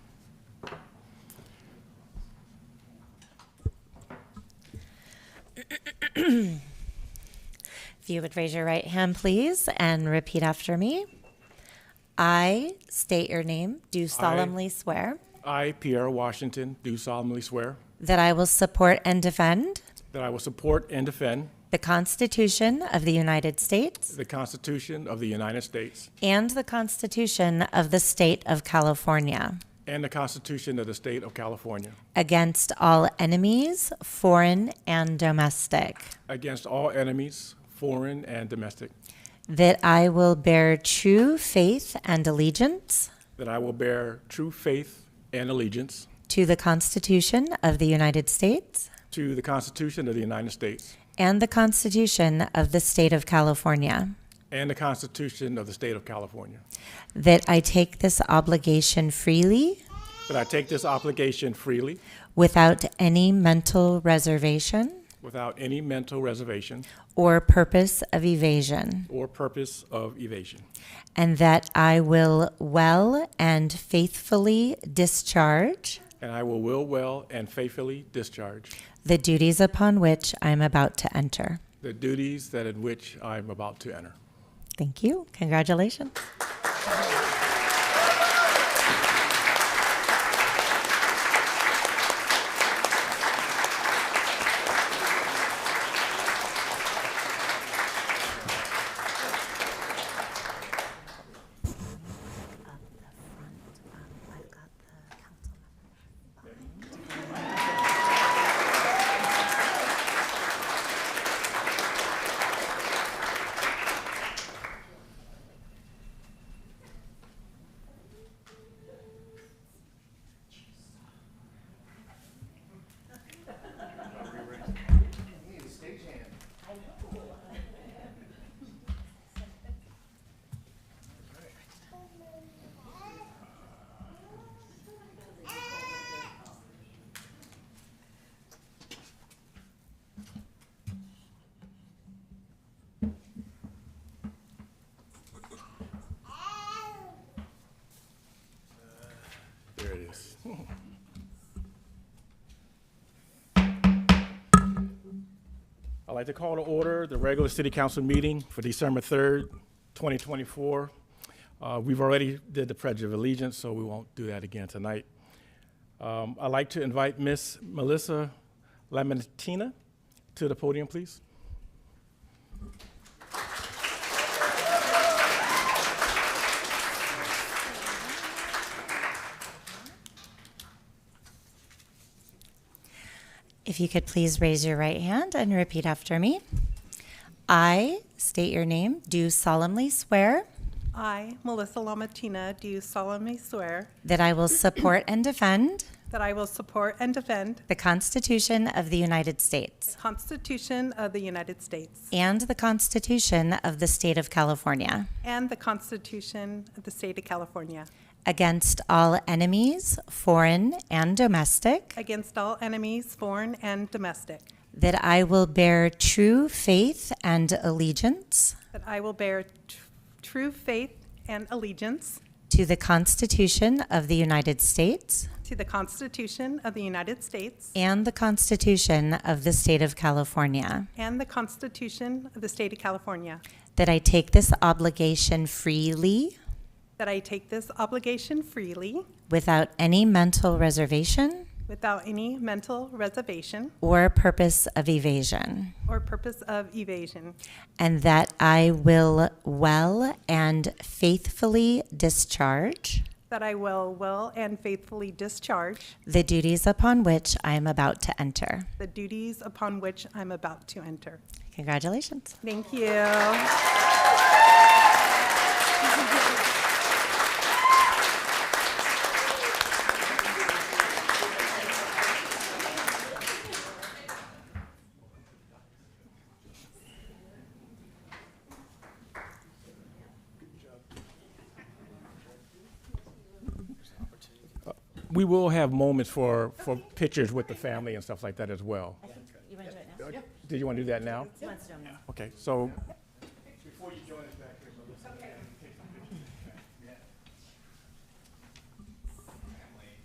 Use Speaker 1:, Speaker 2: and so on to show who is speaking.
Speaker 1: If you would raise your right hand, please, and repeat after me. I state your name, do solemnly swear
Speaker 2: I, Pierre Washington, do solemnly swear
Speaker 1: that I will support and defend
Speaker 2: that I will support and defend
Speaker 1: the Constitution of the United States
Speaker 2: the Constitution of the United States
Speaker 1: and the Constitution of the State of California
Speaker 2: and the Constitution of the State of California
Speaker 1: against all enemies, foreign and domestic,
Speaker 2: against all enemies, foreign and domestic,
Speaker 1: that I will bear true faith and allegiance
Speaker 2: that I will bear true faith and allegiance
Speaker 1: to the Constitution of the United States
Speaker 2: to the Constitution of the United States
Speaker 1: and the Constitution of the State of California,
Speaker 2: and the Constitution of the State of California,
Speaker 1: that I take this obligation freely
Speaker 2: that I take this obligation freely
Speaker 1: without any mental reservation
Speaker 2: without any mental reservation
Speaker 1: or purpose of evasion,
Speaker 2: or purpose of evasion,
Speaker 1: and that I will well and faithfully discharge
Speaker 2: and I will will well and faithfully discharge
Speaker 1: the duties upon which I am about to enter.
Speaker 2: the duties that in which I am about to enter.
Speaker 1: Thank you. Congratulations.
Speaker 2: There it is. I'd like to call to order the regular city council meeting for December 3rd, 2024. Uh, We've already did the pledge of allegiance, so we won't do that again tonight. Um, I'd like to invite Miss Melissa Lamentina to the podium, please.
Speaker 1: If you could please raise your right hand and repeat after me. I state your name, do solemnly swear
Speaker 3: I, Melissa Lomatina, do solemnly swear
Speaker 1: that I will support and defend
Speaker 3: that I will support and defend
Speaker 1: the Constitution of the United States
Speaker 3: the Constitution of the United States
Speaker 1: and the Constitution of the State of California
Speaker 3: and the Constitution of the State of California
Speaker 1: against all enemies, foreign and domestic,
Speaker 3: against all enemies, foreign and domestic,
Speaker 1: that I will bear true faith and allegiance
Speaker 3: that I will bear tr- true faith and allegiance
Speaker 1: to the Constitution of the United States
Speaker 3: to the Constitution of the United States
Speaker 1: and the Constitution of the State of California.
Speaker 3: and the Constitution of the State of California,
Speaker 1: That I take this obligation freely,
Speaker 3: that I take this obligation freely
Speaker 1: without any mental reservation
Speaker 3: without any mental reservation
Speaker 1: or purpose of evasion,
Speaker 3: or purpose of evasion,
Speaker 1: and that I will well and faithfully discharge
Speaker 3: That I will well and faithfully discharge
Speaker 1: the duties upon which I am about to enter.
Speaker 3: the duties upon which I'm about to enter.
Speaker 1: Congratulations.
Speaker 3: Thank you.
Speaker 2: We will have moments for, for pictures with the family and stuff like that as well. Did you want to do that now? Okay, so. Before you join us,